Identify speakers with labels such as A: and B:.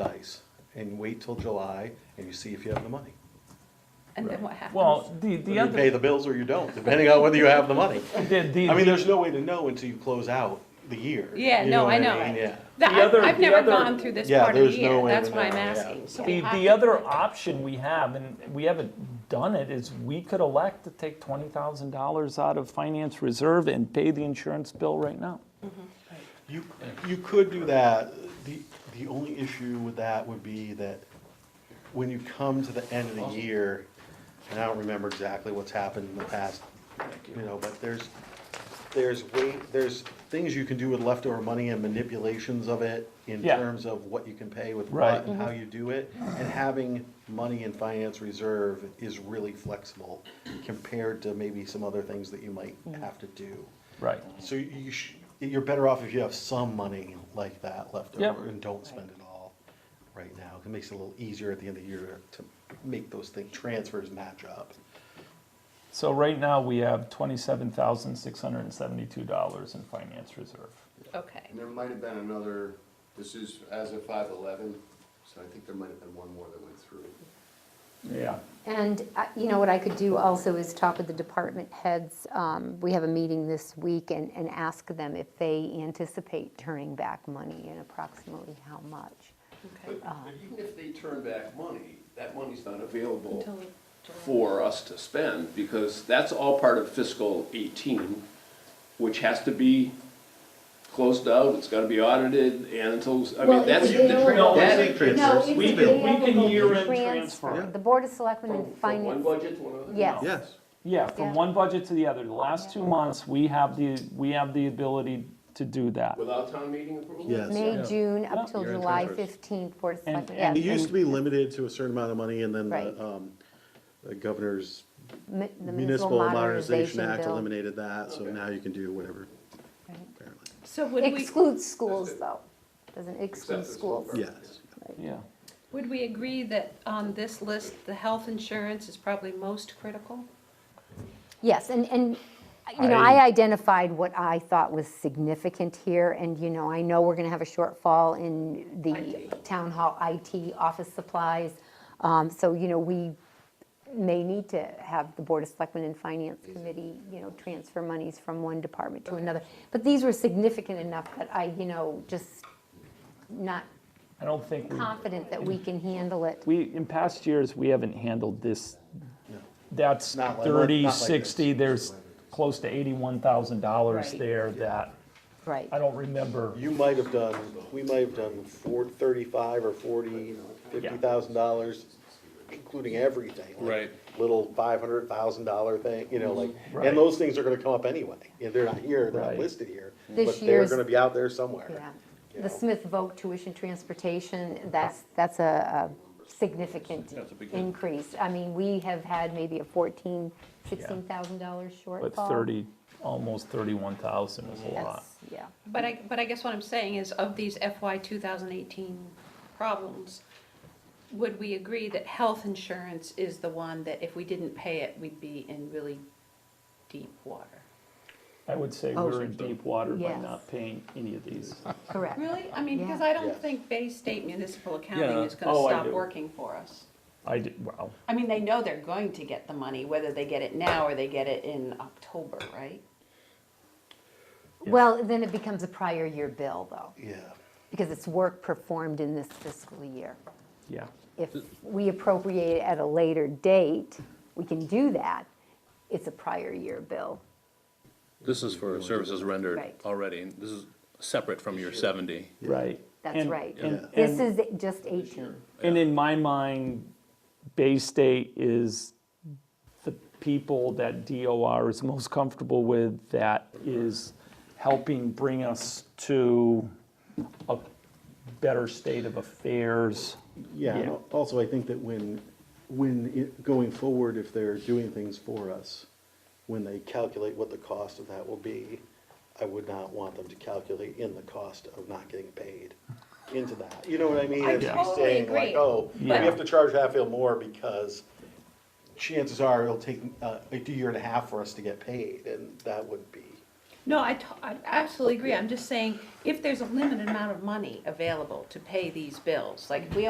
A: dice and wait till July and you see if you have the money.
B: And then what happens?
C: Well, the, the
A: You pay
C: other,
A: the bills or you don't, depending on whether you have the money.
C: the, the.
A: I mean, there's no way to know until you close out the year.
B: Yeah,
A: You
B: no,
A: what
B: I know.
A: mean? Yeah.
B: That-
C: The other-
B: I've, I've
C: the
B: never
C: other-
B: gone through this
A: Yeah,
B: part of the
A: there's no
B: year,
A: way
B: that's
A: to
B: why I'm
A: know, yeah.
B: asking. So we
C: The,
B: have
C: the
B: to-
C: other option we have, and we haven't done it, is we could elect to take twenty thousand dollars out of finance reserve and pay the insurance bill right now.
A: You, you could do that. The, the only issue with that would be that when you come to the end of the year, and I don't remember exactly what's happened in the past, you know, but there's, there's way, there's things you can do with leftover money and manipulations of it in
C: Yeah.
A: terms of what you can pay with
C: Right.
A: what and how you do it. And having money in finance reserve is really flexible compared to maybe some other things that you might have to do.
C: Right.
A: So you sh- you're better off if you have some money like that left
C: Yep.
A: over and don't spend it all right now. It makes it a little easier at the end of the year to make those thing transfers match up.
C: So right now, we have twenty-seven thousand, six hundred and seventy-two dollars in finance reserve.
B: Okay,
D: And there might have been another, this is as of five eleven, so I think there might have been one more that went through.
C: Yeah.
E: And, uh, you know, what I could do also is talk with the department heads. Um, We have a meeting this week and, and ask them if they anticipate turning back money and approximately how much.
B: okay.
D: But
E: Uh-huh.
D: but even if they turn back money, that money's not available
B: Until July.
D: for us to spend, because that's all part of fiscal eighteen, which has to be closed out, it's gotta be audited, and until, I mean,
E: Well, if
D: that's.
E: they
D: the
E: don't-
D: tra-
C: No,
D: that-
E: it's- No,
A: transfers.
E: it's
C: We
E: if
C: can-
E: they
C: we
E: have
C: can
E: a
C: year-end
E: transfer.
C: transfer.
E: The Board of Selectmen
D: From
E: and
D: from Oh, one
E: Finance,
D: budget to another?
E: yes.
A: Yes.
C: Yeah, from
E: Yeah.
C: one budget to the other. The last two months, we have the, we have the ability to do that.
D: Without town meeting approval?
A: Yes.
E: May,
C: Yeah.
E: June, up
C: Yeah.
E: till
A: Year-end
E: July
A: transfers.
E: 15th, Board of
C: And-
E: Selectmen.
C: and-
E: yes,
A: It used
E: and
A: to be limited to a certain amount of money and then
E: Right.
A: the, um, the governor's
E: mi- the
A: municipal modernization act
E: bill.
A: eliminated that, so now you can do whatever,
E: Right.
A: apparently.
B: So would we,
E: Excludes schools,
D: it.
E: though. Doesn't
D: Except for
E: exclude schools.
D: school.
A: Yes.
C: Yeah.
B: would we agree that on this list, the health insurance is probably most critical?
E: Yes, and, and, you know, I identified what I thought was significant here, and, you know, I know we're gonna have a shortfall in the
B: IT.
E: town hall IT office supplies. Um, So, you know, we may need to have the Board of Selectmen and Finance Committee, you know, transfer monies from one department to another. But these were significant enough that I, you know, just not
C: I don't think we
E: confident that we can handle it.
C: We, in past years, we haven't handled this.
A: No.
C: That's
A: Not like-
C: thirty,
A: not like this.
C: sixty, there's close to eighty-one thousand dollars
B: Right.
C: there that,
E: Right.
C: I don't remember.
A: You might have done, we might have done four, thirty-five or forty, fifty thousand dollars, including everything. like
F: Right.
A: Little five hundred thousand dollar thing, you know, like,
C: Right.
A: and those things are gonna come up anyway. Yeah, they're not here, they're not
C: Right.
A: listed here,
E: This
A: but they're
E: year's-
A: gonna be out there somewhere.
E: Yeah, the Smith vote tuition transportation, that's, that's a a significant
F: That's a big hit.
E: increase. I mean, we have had maybe a fourteen, sixteen thousand dollar shortfall.
C: But thirty, almost thirty-one thousand is a lot.
E: Yes, yeah.
B: But I, but I guess what I'm saying is of these FY 2018 problems, would we agree that health insurance is the one that if we didn't pay it, we'd be in really deep water?
C: I would say we're in deep water by
E: Oh, Yes.
C: not paying any of these.
E: Correct.
B: Really? I mean, because
E: Yeah.
B: I don't
A: Yes.
B: think Bay State municipal accounting
F: Yeah.
B: is gonna
C: Oh, I
B: stop
C: do.
B: working for us.
C: I did, well,
B: I mean, they know they're going to get the money, whether they get it now or they get it in October, right?
E: Well, then it becomes a prior year bill, though,
A: Yeah.
E: because it's work performed in this fiscal year.
C: yeah.
E: If we appropriate it at a later date, we can do that. It's a prior year bill.
F: This is for services rendered
E: Right.
F: already, and this is separate from your seventy.
C: Right.
E: That's
C: And-
E: right.
C: and-
E: This
C: and-
E: is just 18.
C: And in my mind, Bay State is the people that DOR is most comfortable with that is helping bring us to a better state of affairs.
A: Yeah, and
C: Yeah.
A: also I think that when, when, it- going forward, if they're doing things for us, when they calculate what the cost of that will be, I would not want them to calculate in the cost of not getting paid into that. You know what I mean?
B: I
A: If you're
B: totally
A: saying like,
B: agree.
A: Oh, we
C: Yeah.
A: have to charge Hatfield more because chances are it'll take uh, a year and a half for us to get paid, and that would be.
B: No, I, t- I absolutely agree. I'm just saying, if there's a limited amount of money available to pay these bills, like, we